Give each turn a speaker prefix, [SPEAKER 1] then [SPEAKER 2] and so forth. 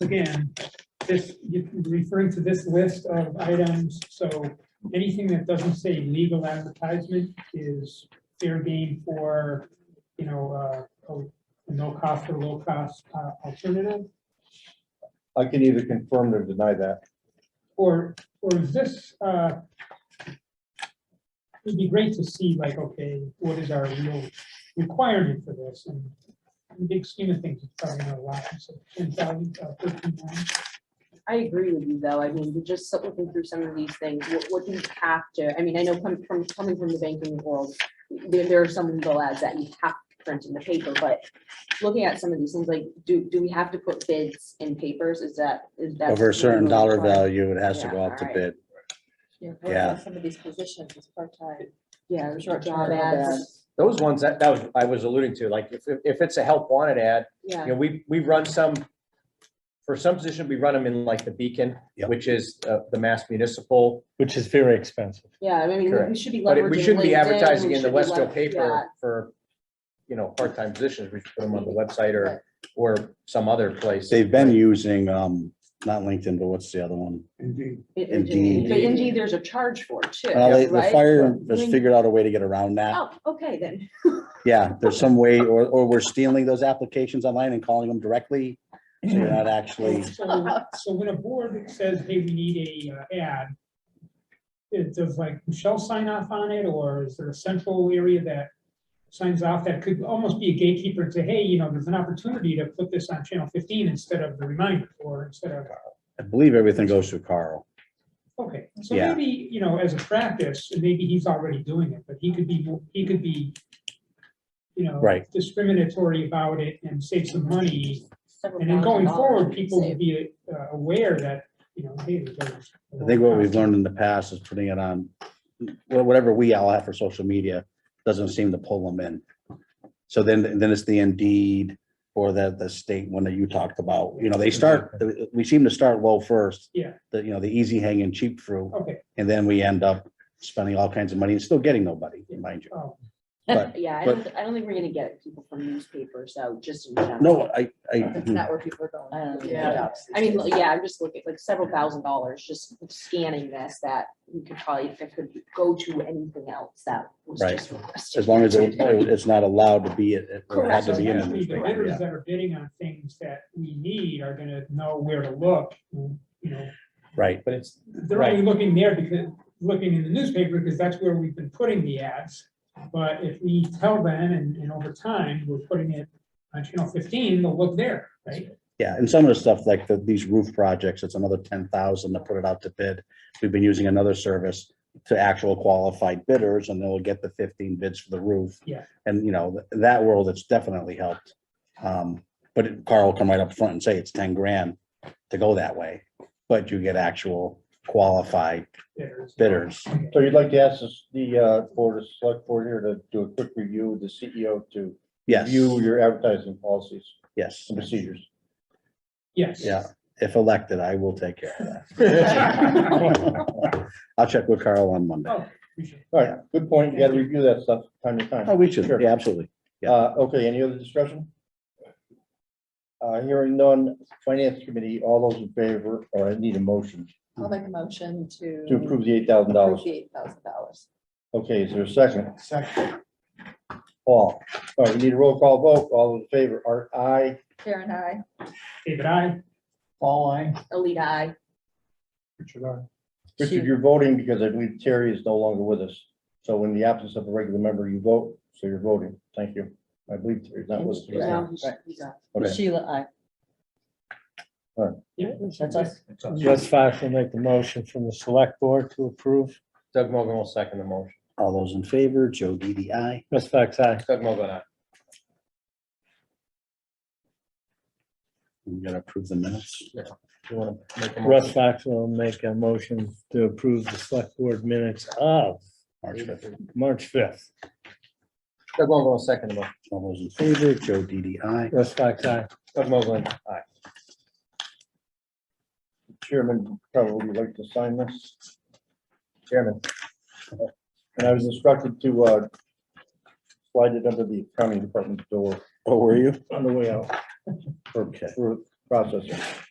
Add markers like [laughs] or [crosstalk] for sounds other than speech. [SPEAKER 1] again, this, you're referring to this list of items, so anything that doesn't say legal advertisement is fair game for, you know, uh, a no cost or low cost uh, alternative?
[SPEAKER 2] I can either confirm or deny that.
[SPEAKER 1] Or, or is this, uh, it'd be great to see like, okay, what is our real requirement for this? And in the big scheme of things, it's probably not a lot, so ten thousand, uh, thirteen thousand.
[SPEAKER 3] I agree with you, though. I mean, we're just looking through some of these things, what, what do you have to, I mean, I know coming from, coming from the banking world, there, there are some legal ads that you have to print in the paper, but looking at some of these things, like, do, do we have to put bids in papers? Is that, is that?
[SPEAKER 4] Over a certain dollar value, it has to
[SPEAKER 3] Yeah,
[SPEAKER 4] go out to
[SPEAKER 3] alright.
[SPEAKER 4] bid.
[SPEAKER 5] Yeah, what
[SPEAKER 4] Yeah.
[SPEAKER 5] about some of these positions, it's part-time.
[SPEAKER 3] Yeah, short
[SPEAKER 5] Short-term
[SPEAKER 3] job ads,
[SPEAKER 6] Those ones that, that was, I was alluding to, like, if, if it's a help wanted ad, you
[SPEAKER 3] yeah,
[SPEAKER 6] know, we, we run some, for some position, we run them in like the Beacon,
[SPEAKER 4] Yep.
[SPEAKER 6] which is uh, the Mass Municipal.
[SPEAKER 7] which is very expensive.
[SPEAKER 3] yeah, I mean, we-
[SPEAKER 6] Correct.
[SPEAKER 3] we should be leveraging.
[SPEAKER 6] But it- we shouldn't be
[SPEAKER 3] LinkedIn,
[SPEAKER 6] advertising
[SPEAKER 3] we
[SPEAKER 6] in the
[SPEAKER 3] should be
[SPEAKER 6] Westfield
[SPEAKER 3] lever-
[SPEAKER 6] paper for, you know, part-time positions. We should put them on the website or, or some other place.
[SPEAKER 4] They've been using, um, not LinkedIn, but what's the other one?
[SPEAKER 3] yeah.
[SPEAKER 4] Indeed.
[SPEAKER 3] But indeed, there's a charge for it, too,
[SPEAKER 4] Well, they- the
[SPEAKER 3] right?
[SPEAKER 4] fire
[SPEAKER 3] But
[SPEAKER 4] has
[SPEAKER 3] when-
[SPEAKER 4] figured out a way to get around that.
[SPEAKER 3] Oh, okay, then,
[SPEAKER 4] Yeah, there's some way, or, or we're stealing those applications online and calling them directly. So you're not actually,
[SPEAKER 1] So so when a board says, hey, we need a uh, ad, it does like Michelle sign off on it, or is there a central area that signs off that could almost be a gatekeeper to, hey, you know, there's an opportunity to put this on channel fifteen instead of the reminder, or instead of,
[SPEAKER 4] I believe everything goes through Carl.
[SPEAKER 1] okay. So
[SPEAKER 4] Yeah.
[SPEAKER 1] maybe, you know, as a practice, and maybe he's already doing it, but he could be, mo- he could be, you know,
[SPEAKER 4] Right.
[SPEAKER 1] discriminatory about it and save some money
[SPEAKER 3] several
[SPEAKER 1] And then going
[SPEAKER 3] thousand dollars
[SPEAKER 1] forward,
[SPEAKER 3] we could
[SPEAKER 1] people will [laughs]
[SPEAKER 3] save.
[SPEAKER 1] be uh, aware that, you know, hey. there's a-
[SPEAKER 4] I think what we've learned in the past is putting it on, wha- whatever we all have for social media, doesn't seem to pull them in. So then, then it's the Indeed or the, the state one that you talked about, you know, they start, we seem to start low first.
[SPEAKER 1] Yeah.
[SPEAKER 4] The, you know, the easy hanging cheap fruit,
[SPEAKER 1] Okay,
[SPEAKER 4] and then we end up spending all kinds of money and still getting nobody, mind you.
[SPEAKER 1] oh,
[SPEAKER 3] [laughs]
[SPEAKER 4] But,
[SPEAKER 3] Yeah, I don't, I don't think we're gonna get people from newspapers, so just in general.
[SPEAKER 4] no, I,
[SPEAKER 5] That's
[SPEAKER 4] I,
[SPEAKER 5] not where people are going.
[SPEAKER 3] I don't
[SPEAKER 5] Yeah.
[SPEAKER 3] know. I mean, yeah, I'm just looking, like several thousand dollars just scanning this that we could probably, if it could go to anything else that was
[SPEAKER 4] Right.
[SPEAKER 3] just requested.
[SPEAKER 4] as long as it- it's not allowed to be, it it had
[SPEAKER 3] Correct.
[SPEAKER 4] to
[SPEAKER 1] so
[SPEAKER 4] be in the
[SPEAKER 1] actually, the
[SPEAKER 4] newspaper,
[SPEAKER 1] bidders
[SPEAKER 4] yeah.
[SPEAKER 1] that are bidding on things that we need are gonna know where to look, you know.
[SPEAKER 4] right,
[SPEAKER 6] But it's,
[SPEAKER 1] They're only looking there because, looking in the newspaper, because that's where we've been putting the ads. But if we tell them and, and over time, we're putting it on channel fifteen, they'll look there, right?
[SPEAKER 4] yeah, and some of the stuff like the, these roof projects, it's another ten thousand to put it out to bid. We've been using another service to actual qualified bidders, and then we'll get the fifteen bids for the roof.
[SPEAKER 1] Yeah.
[SPEAKER 4] And, you know, th- that world, it's definitely helped. Um, but Carl will come right up front and say it's ten grand to go that way, but you get actual qualified
[SPEAKER 1] Bidders.
[SPEAKER 4] bidders.
[SPEAKER 2] So you'd like to ask this- the, uh, board of select board here to do a quick review with the CEO to
[SPEAKER 4] Yes,
[SPEAKER 2] review your advertising policies
[SPEAKER 4] yes,
[SPEAKER 2] and
[SPEAKER 6] [laughs]
[SPEAKER 2] procedures.
[SPEAKER 1] Yes.
[SPEAKER 4] yeah. If elected, I will take care of that. [laughs]
[SPEAKER 1] Oh,
[SPEAKER 4] I'll check with Carl on Monday.
[SPEAKER 1] appreciate it.
[SPEAKER 2] All right, good point. You gotta review that stuff time to time.
[SPEAKER 4] Oh, we should,
[SPEAKER 2] Sure.
[SPEAKER 4] yeah, absolutely. yeah.
[SPEAKER 2] Uh, okay, any other discussion? Uh, hearing none, finance committee, all those in favor, or I need a motion
[SPEAKER 5] I'll make a motion to.
[SPEAKER 2] to approve the eight thousand dollars.
[SPEAKER 5] Eight thousand dollars.
[SPEAKER 2] Okay, is there a second? Second. Paul, all right, we need a roll call vote. All in favor, Art, aye.
[SPEAKER 5] Karen, I.
[SPEAKER 1] David, I,
[SPEAKER 2] Paul, aye.
[SPEAKER 3] Elite eye.
[SPEAKER 2] Richard, aye. Richard, you're voting because I believe Terry is no longer with us. So in the absence of a regular member, you vote, so you're voting. Thank you. I believe Terry's not with us.
[SPEAKER 3] you know, he's- he's a-
[SPEAKER 2] Okay.
[SPEAKER 5] Sheila, I.
[SPEAKER 1] 哎
[SPEAKER 5] That's us.
[SPEAKER 7] Russ Fox will make the motion from the select board to approve.
[SPEAKER 6] Doug Mogul will second the motion.
[SPEAKER 4] All those in favor, Joe DDI.
[SPEAKER 7] Russ Fox, aye.
[SPEAKER 6] Doug Mogul, uh, aye.
[SPEAKER 4] We gotta approve the minutes.
[SPEAKER 6] You wanna make a motion?
[SPEAKER 7] Russ Fox will make a motion to approve the select board minutes of
[SPEAKER 4] March fifth.
[SPEAKER 7] March fifth.
[SPEAKER 6] Doug Mogul will second the motion.
[SPEAKER 4] All those in favor, Joe DDI.
[SPEAKER 7] Russ Fox, aye.
[SPEAKER 6] Doug Mogul, aye.
[SPEAKER 2] Chairman probably would like to sign this.
[SPEAKER 6] Chairman,
[SPEAKER 2] And I was instructed to, uh, slide it under the accounting department door
[SPEAKER 4] Oh, were you?
[SPEAKER 2] on the way out
[SPEAKER 4] Okay.
[SPEAKER 2] for processing.